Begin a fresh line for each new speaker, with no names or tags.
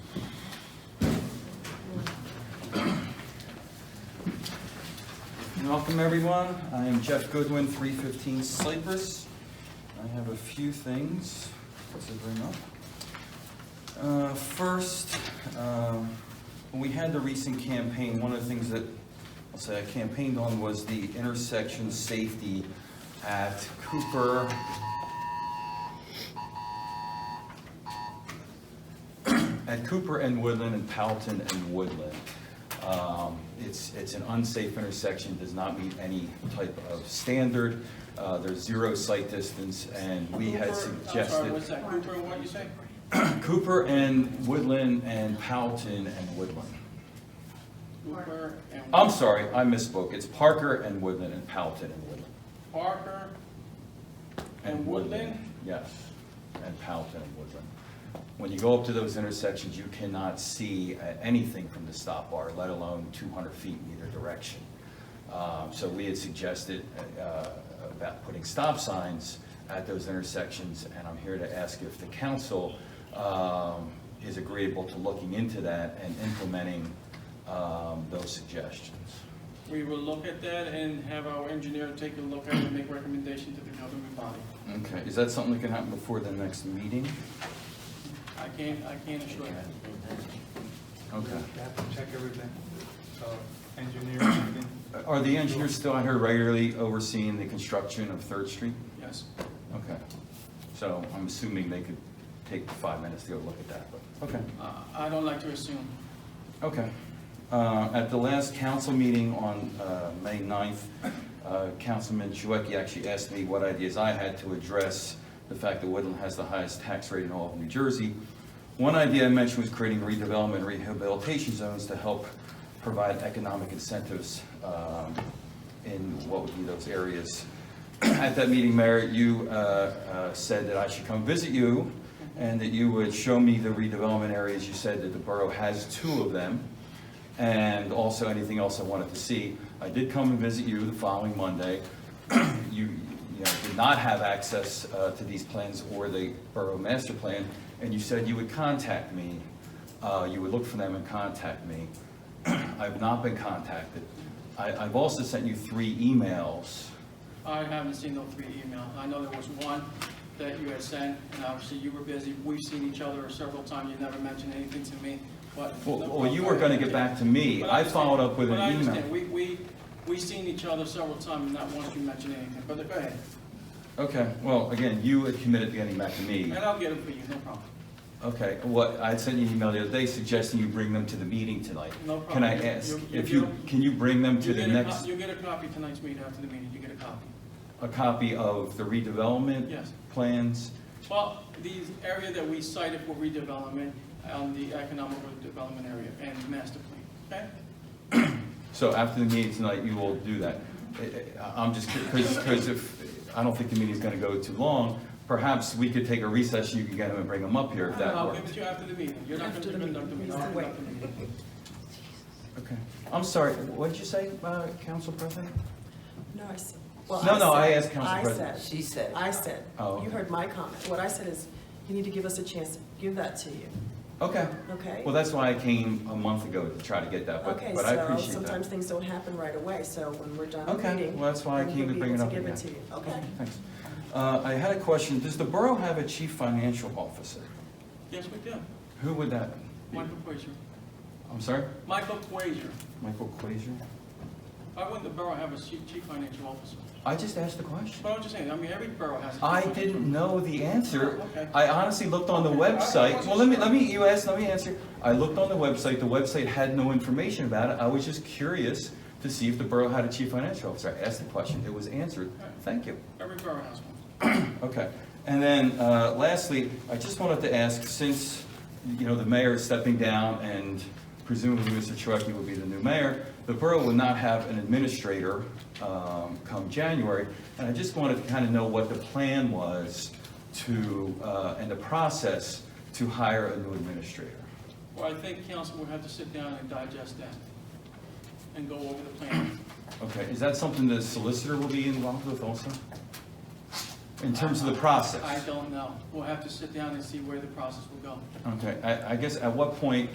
Welcome, everyone. I am Jeff Goodwin, 315 Cypress. I have a few things to bring up. Uh, First, um, when we had the recent campaign, one of the things that, I'll say I campaigned on was the intersection safety at Cooper. At Cooper and Woodland and Powelton and Woodland. Um, It's, it's an unsafe intersection, does not meet any type of standard. Uh, There's zero sight distance and we had
Cooper- I'm
suggested.
sorry, what's that, Cooper, and what you say?
Cooper and Woodland and Powelton and Woodland.
Cooper and
I'm sorry, I misspoke. It's Parker and Woodland and Powelton and Woodland.
Parker and Woodland?
Yes, and Powelton and Woodland. When you go up to those intersections, you cannot see uh, anything from the stop bar, let alone 200 feet in either direction. Um, So we had suggested uh, about putting stop signs at those intersections, and I'm here to ask if the council um, is agreeable to looking into that and implementing um, those suggestions.
We will look at that and have our engineer take a look at it and make recommendation to the government body.
Okay, is that something that can happen before the next meeting?
I can't, I can't assure that.
Okay.
You have to check everything, so engineering, everything.
Are the engineers still out here regularly overseeing the construction of Third Street?
Yes.
Okay. So I'm assuming they could take five minutes to go look at that, but, okay.
Uh, I don't like to assume.
Okay. Uh, At the last council meeting on uh, May 9th, uh, Councilman Chouwaki actually asked me what ideas I had to address the fact that Woodland has the highest tax rate in all of New Jersey. One idea I mentioned was creating redevelopment rehabilitation zones to help provide economic incentives um, in what would be those areas. At that meeting, Mayor, you uh, uh, said that I should come visit you and that you would show me the redevelopment areas. You said that the borough has two of them, and also anything else I wanted to see. I did come and visit you the following Monday. You, you know, did not have access uh, to these plans or the borough master plan, and you said you would contact me. Uh, You would look for them and contact me. I've not been contacted. I, I've also sent you three emails.
I haven't seen those three emails. I know there was one that you had sent, and obviously you were busy. We've seen each other several times. You never mentioned anything to me, but.
Well, well, you were gonna get back to me.
But
I
understand-
followed up with
but I
an
understand.
email.
We, we, we seen each other several times, and not once you mentioned anything, but go ahead.
Okay, well, again, you had committed to getting back to me.
And I'll get them for you, no problem.
Okay, what, I sent you an email the other day suggesting you bring them to the meeting tonight.
No
Can
problem.
I
You-
ask,
you-
if
you-
you, can you bring them to
You
the
get a co-
next,
You get a copy tonight's meeting after the meeting, you get a copy.
a copy of the redevelopment?
Yes.
Plans?
Well, the area that we cited for redevelopment, um, the economic development area and master plan, okay?
So after the meeting tonight, you will do that. I- I- I'm just, because, because if, I don't think the meeting's gonna go too long, perhaps we could take a recess, you can get them and bring them up here if that
I'll
works.
give it to you after the meeting. You're not going
After
to
the
conduct the
meeting.
meeting. I'll conduct the meeting.
Okay, I'm sorry, what did you say, uh, Council President?
No, I said. well,
No, no, I
said-
asked Council President.
I said. She said. I said.
Oh.
You heard my comment. What I said is, you need to give us a chance to give that to you,
Okay,
okay?
well, that's why I came a month ago to try to get that, but,
Okay,
but I
so
appreciate
sometimes
that.
things don't happen right away, so when we're done
Okay,
reading.
well, that's why I
then
came to
we'll be
bring
able
it up
Give it to
again.
you, okay?
Thanks. Uh, I had a question, does the borough have a chief financial officer?
Yes, we do.
Who would that be?
Michael Frazier.
I'm sorry?
Michael Frazier.
Michael Quasier?
Why wouldn't the borough have a chief chief financial officer?
I just asked the question.
But I'm just saying, I mean, every borough has a. chief
I
financial-
didn't know the answer.
Okay.
I honestly looked on the
Okay, I- I
website.
wasn't
Well, let me,
sure.
let me, you asked, let me answer. I looked on the website, the website had no information about it. I was just curious to see if the borough had a chief financial officer. I asked the question, it was answered. Thank you.
Every borough has one.
Okay, and then uh, lastly, I just wanted to ask, since, you know, the mayor is stepping down and presumably Mr. Chouwaki will be the new mayor, the borough will not have an administrator um, come January, and I just wanted to kind of know what the plan was to, uh, and the process to hire a new administrator.
Well, I think council will have to sit down and digest that and go over the plan.
Okay, is that something the solicitor will be involved with also? In terms of the process?
I don't know. We'll have to sit down and see where the process will go.
Okay, I I guess at what point